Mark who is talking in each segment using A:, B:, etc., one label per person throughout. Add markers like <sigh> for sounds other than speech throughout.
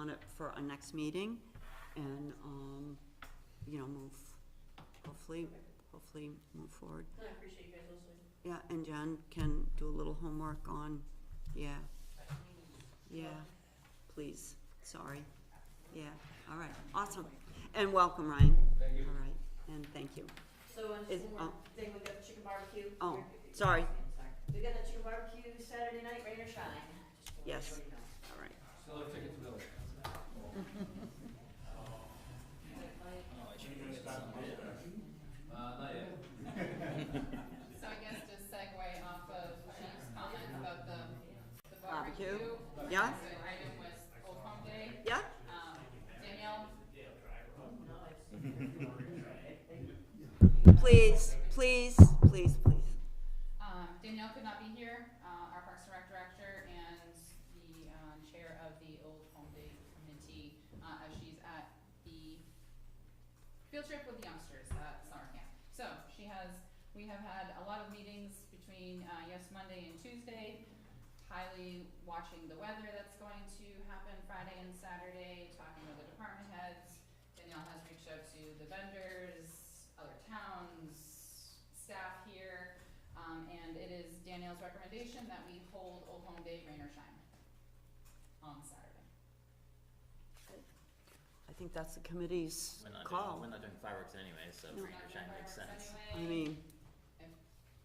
A: on it for our next meeting and, um, you know, move, hopefully, hopefully move forward.
B: I appreciate you guys listening.
A: Yeah, and John can do a little homework on, yeah, yeah, please, sorry. Yeah, all right, awesome. And welcome, Ryan. Thank you. All right, and thank you.
B: So, and
A: Is-
B: just one more thing, we've got the chicken barbecue.
A: Oh,
B: We're- we're-
A: sorry.
B: sorry. We've got the chicken barbecue Saturday night, rain or shine. Just wanna
A: Yes.
B: let you know.
A: All right.
C: Still have tickets available. Uh, not yet.
D: So I guess to segue off of Chief's comment about the, the
A: Barbecue.
D: barbecue.
A: Yeah.
D: The item was Old Home Day.
A: Yeah,
D: Um, Danielle,
A: please, please, please, please.
D: um, Danielle could not be here, uh, our Parks and Rec Director and the, um, Chair of the Old Home Day Committee, uh, as she's at the field trip with the youngsters at summer camp. So she has, we have had a lot of meetings between, uh, yes, Monday and Tuesday, highly watching the weather that's going to happen Friday and Saturday, talking with the department heads. Danielle has reached out to the vendors, other towns, staff here, um, and it is Danielle's recommendation that we hold Old Home Day, rain or shine, on Saturday.
A: I think that's the committee's
E: We're not doing,
A: call.
E: we're not doing fireworks anyway, so
A: No.
E: rain or shine makes sense.
D: Fireworks
A: I
D: anyway.
A: mean,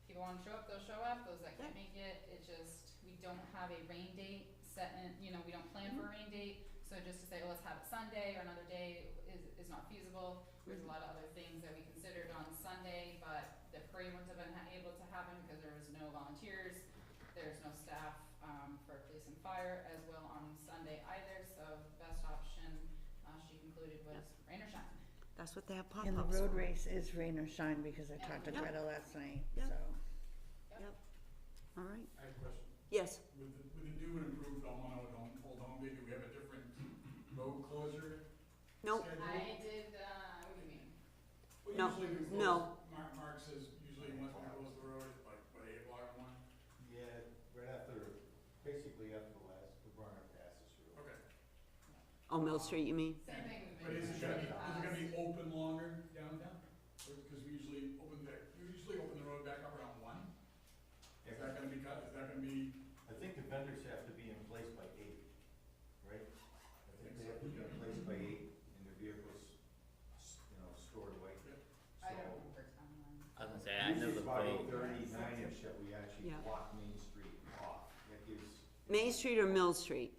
D: people wanna show up, they'll show up, those that can't
A: Yeah.
D: make it, it just, we don't have a rain date set in, you know, we don't plan for a rain date, so just to say, well, let's have it Sunday or another day is, is not feasible. There's a lot of other things that we considered on Sunday, but the parade wouldn't have been ha- able to happen because there was no volunteers, there's no staff, um, for police and fire as well on Sunday either, so best option, uh, she concluded was rain or shine.
A: that's what they have
F: And the
A: pop-ups
F: road
A: for.
F: race is rain or shine because I talked to
A: Yeah.
F: Greta last night, so.
A: Yeah. All right,
G: I have a question.
A: yes,
G: With the, with the new and improved Almano Dome, Old Home Day, do we have a different road closure
A: no,
G: schedule?
D: I did, uh, what do you mean?
G: Well,
A: No,
G: usually we close-
A: no.
G: Mark, Mark says usually once we close the road, like, by eight o'clock one,
H: Yeah, right after, basically after the last, the burner passes through.
G: okay.
A: on Oh, Mill Street, you mean?
D: Same thing we've
G: But
D: been
G: is
D: doing.
G: it gonna be, is it gonna
D: Uh,
G: be open longer downtown? Because we usually open back, we usually open the road back up around one. Is that gonna be cut, is that gonna be,
H: I think the vendors have to be in place by eight, right? I think they have to be in place by eight and their vehicles, s- you know, stored away.
G: Yeah.
D: I don't
H: So,
D: remember timeline.
E: I was gonna say, I know
H: usually
E: the
H: it's about
E: way,
H: eight thirty, nine-ish that we actually
A: Yeah.
H: block Main Street off. That gives,
A: Main Street or Mill Street?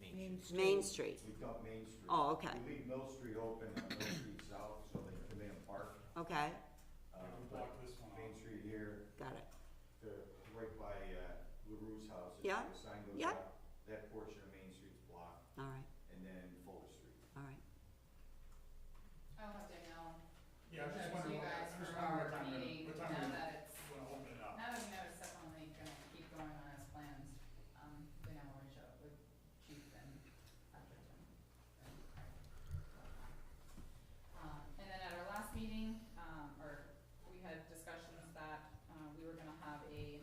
E: Main Street.
A: Main Street,
H: we dump Main Street.
A: Oh, okay.
H: We leave Mill Street open on Mill Street South so they can come in and park.
A: okay,
H: Uh,
G: if we
H: but
G: block this one
H: Main
G: off?
H: Street here,
A: got it,
H: the, right by, uh, LaRue's house. if
A: Yeah,
H: The sign goes
A: yeah.
H: up, that portion of Main Street's blocked,
A: all right,
H: and then Fuller Street.
A: all right.
D: I'll have Danielle
G: yeah, I'm
D: go
G: just
D: to
G: wondering,
D: you
G: what-
D: guys
G: I'm
D: for
G: just wondering what
D: our
G: time we're,
D: meeting,
G: what time
D: now
G: we're
D: that it's,
G: gonna open it up.
D: now that we know it's definitely gonna keep going on as planned, um, Danielle will reach out with Chief and Dr. Jim. Um, and then at our last meeting, um, or we had discussions that, uh, we were gonna have a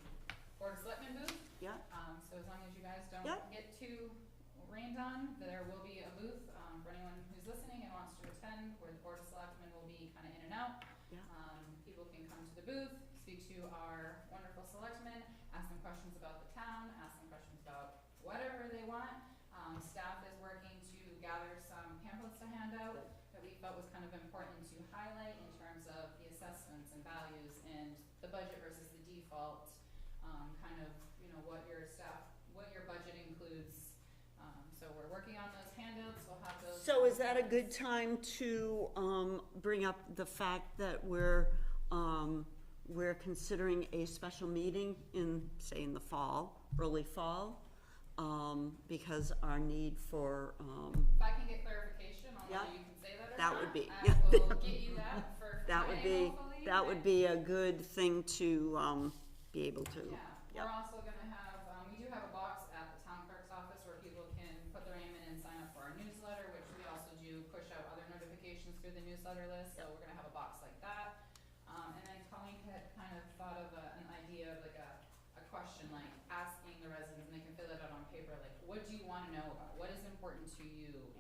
D: board of selectmen booth
A: Yeah,
D: Um, so as long as you guys don't
A: Yeah.
D: get too rained on, there will be a booth, um, for anyone who's listening and wants to attend, where the board of selectmen will be kinda in and out.
A: Yeah.
D: Um, people can come to the booth, speak to our wonderful selectmen, ask them questions about the town, ask them questions about whatever they want. Um, staff is working to gather some pamphlets to hand out that we felt was kind of important to highlight in terms of the assessments and values and the budget versus the default um, kind of, you know, what your staff, what your budget includes. Um, so we're working on those handouts, we'll have those.
A: So is that a good time to, um, bring up the fact that we're, um, we're considering a special meeting in, say, in the fall, early fall? Um, because our need for, um,
D: If I can get clarification on
A: Yeah.
D: whether you can say that or not.
A: That would be-
D: I
A: yeah.
D: will
A: <laughs>
D: get you that for
A: that would be,
D: Friday, hopefully.
A: that would be a good thing to, um, be able to.
D: Yeah,
A: Yep.
D: we're also gonna have, um, we do have a box at the town clerk's office where people can put their name in and sign up for our newsletter, which we also do push out other notifications through the newsletter list, so we're gonna have a box like that. Um, and then Colleen had kind of thought of a, an idea of like a, a question, like asking the residents, and they can fill it out on paper, like, what do you wanna know about, what is important to you?